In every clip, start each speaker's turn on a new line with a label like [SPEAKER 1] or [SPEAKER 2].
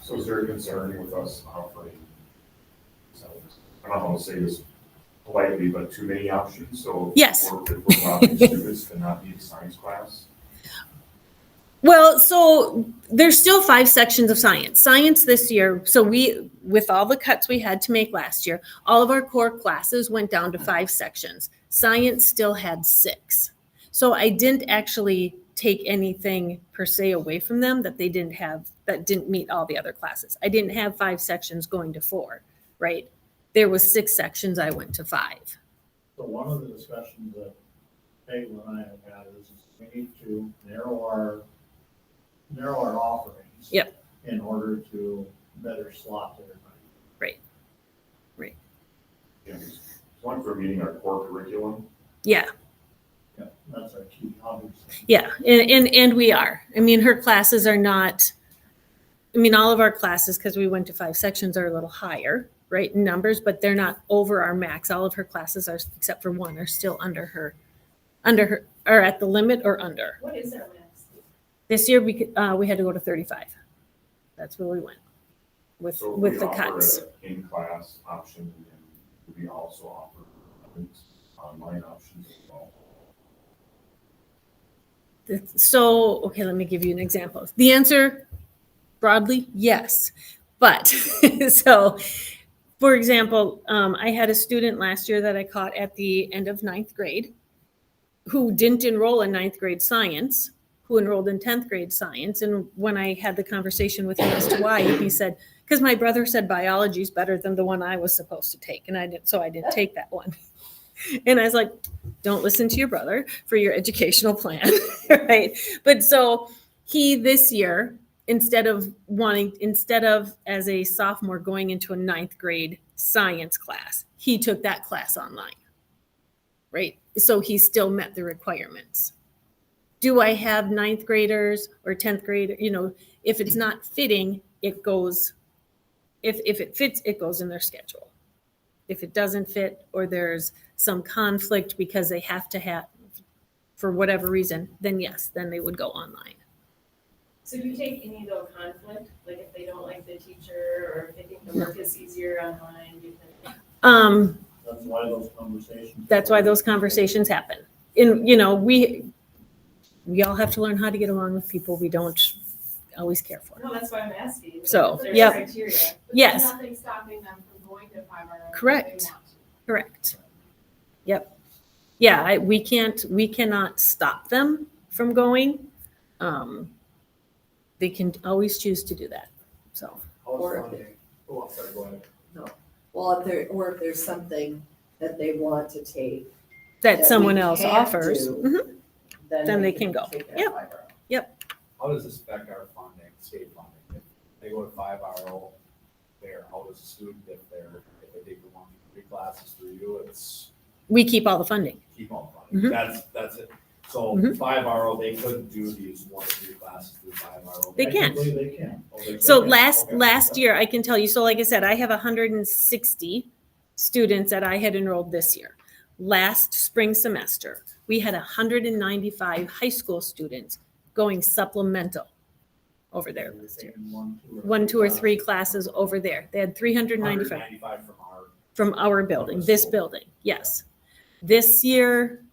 [SPEAKER 1] So is there a concern with us offering, so, I don't know how to say this politely, but too many options, so.
[SPEAKER 2] Yes.
[SPEAKER 1] We're we're allowing students to not be in science class.
[SPEAKER 2] Well, so there's still five sections of science. Science this year, so we, with all the cuts we had to make last year, all of our core classes went down to five sections. Science still had six. So I didn't actually take anything per se away from them that they didn't have, that didn't meet all the other classes. I didn't have five sections going to four, right? There was six sections, I went to five.
[SPEAKER 3] So one of the discussions that Peggy and I have had is we need to narrow our, narrow our offerings.
[SPEAKER 2] Yep.
[SPEAKER 3] In order to better slot everybody.
[SPEAKER 1] Yeah, because One, for meeting our core curriculum,
[SPEAKER 2] Yeah.
[SPEAKER 3] Yeah, That's our key, obviously.
[SPEAKER 2] Yeah, and, and and we are. I mean, her classes are not. I mean, all of our classes, because we went to five sections, are a little higher, right, in numbers, but they're not over our max. All of her classes are, except for one, are still under her, under her, are at the limit or under.
[SPEAKER 4] What is our max?
[SPEAKER 2] This year, we could, uh, we had to go to thirty-five. That's where we went with
[SPEAKER 1] so if we
[SPEAKER 2] with the
[SPEAKER 1] offer
[SPEAKER 2] cuts.
[SPEAKER 1] an in-class option, and we also offer online options as well.
[SPEAKER 2] So, okay, let me give you an example. The answer broadly, yes. But so, for example, um, I had a student last year that I caught at the end of ninth grade who didn't enroll in ninth grade science, who enrolled in 10th grade science. And when I had the conversation with him as to why, he said, because my brother said biology is better than the one I was supposed to take. And I didn't, so I didn't take that one. And I was like, don't listen to your brother for your educational plan, right? But so he this year, instead of wanting, instead of as a sophomore going into a ninth grade science class, he took that class online, right? So he still met the requirements. Do I have ninth graders or 10th grade? You know, if it's not fitting, it goes, if, if it fits, it goes in their schedule. If it doesn't fit or there's some conflict because they have to have, for whatever reason, then yes, then they would go online.
[SPEAKER 4] So do you take any of the conflict, like if they don't like the teacher or if they think the work is easier online? do you think-
[SPEAKER 2] Um,
[SPEAKER 3] That's why those conversations.
[SPEAKER 2] that's why those conversations happen. And, you know, we, we all have to learn how to get along with people we don't always care for.
[SPEAKER 4] No, that's why I'm asking.
[SPEAKER 2] So,
[SPEAKER 4] If there's
[SPEAKER 2] yep.
[SPEAKER 4] criteria.
[SPEAKER 2] Yes.
[SPEAKER 5] Nothing stopping them from going to five hour.
[SPEAKER 2] Correct. Correct. Yep. Yeah, I, we can't, we cannot stop them from going. Um, they can always choose to do that, so.
[SPEAKER 6] Or if
[SPEAKER 3] funding? Oh, I'm sorry, go ahead.
[SPEAKER 6] Well, if there, or if there's something that they want to take.
[SPEAKER 2] That
[SPEAKER 6] we
[SPEAKER 2] someone else
[SPEAKER 6] can't
[SPEAKER 2] offers.
[SPEAKER 6] do,
[SPEAKER 2] Mhm. Then they can go.
[SPEAKER 6] take that
[SPEAKER 2] Yep.
[SPEAKER 6] five hour.
[SPEAKER 7] How does this affect our funding, state funding? If they go to five hour there, how does a student, if they're, if they take the one, three classes through you, it's
[SPEAKER 2] We keep all the funding.
[SPEAKER 7] keep on funding?
[SPEAKER 2] Mhm.
[SPEAKER 7] That's, that's it. So
[SPEAKER 2] Mhm.
[SPEAKER 7] five hour, they couldn't do these one, three classes through five hour.
[SPEAKER 2] They can.
[SPEAKER 3] Technically, They can.
[SPEAKER 7] Oh,
[SPEAKER 2] So last, last year, I can tell you, so like I said, I have hundred and sixty students that I had enrolled this year. Last spring semester, we had hundred and ninety-five high school students going supplemental over there.
[SPEAKER 3] They're taking One, two, or.
[SPEAKER 2] One, two, or three classes over there. They had three hundred and ninety-five
[SPEAKER 7] Ninety-five from our,
[SPEAKER 2] from our building, this building, yes. This year,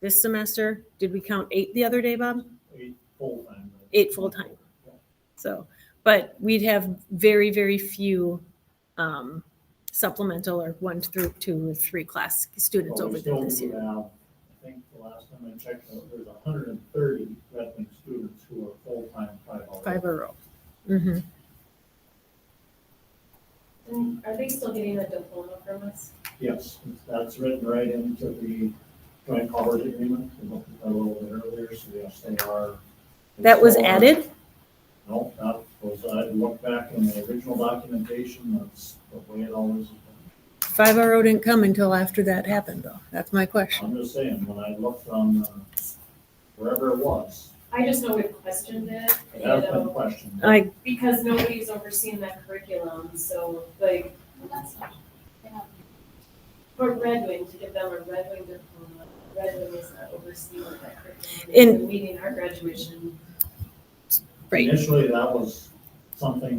[SPEAKER 2] this semester, did we count eight the other day, Bob?
[SPEAKER 3] Eight full-time.
[SPEAKER 2] Eight full-time. So, but we'd have very, very few um, supplemental or one through two or three class students
[SPEAKER 3] Well, we
[SPEAKER 2] over there
[SPEAKER 3] still
[SPEAKER 2] this
[SPEAKER 3] do
[SPEAKER 2] year.
[SPEAKER 3] have, I think the last time I checked, uh, there's hundred and thirty Redmond students who are full-time five hour.
[SPEAKER 2] Five a row. Mhm.
[SPEAKER 4] And are they still getting a diploma from us?
[SPEAKER 3] Yes, that's written right into the joint powers agreement, we looked at that a little bit earlier, so yes, they are.
[SPEAKER 2] That was
[SPEAKER 3] they are-
[SPEAKER 2] added?
[SPEAKER 3] No, that was, I looked back in the original documentation, that's the way it always has been.
[SPEAKER 2] Five a row didn't come until after that happened, though. That's my question.
[SPEAKER 3] I'm just saying, when I looked on uh, wherever it was,
[SPEAKER 4] I just know we've questioned it,
[SPEAKER 3] it
[SPEAKER 4] you
[SPEAKER 3] has been
[SPEAKER 4] know,
[SPEAKER 3] questioned.
[SPEAKER 2] I,
[SPEAKER 4] because nobody's overseeing that curriculum, so like,
[SPEAKER 5] Well, that's not, yeah.
[SPEAKER 4] for Red Wing, to give them a Red Wing diploma, Red Wing is not overseeing that curriculum.
[SPEAKER 2] And-
[SPEAKER 4] Meeting our graduation
[SPEAKER 2] right.
[SPEAKER 3] Initially, that was something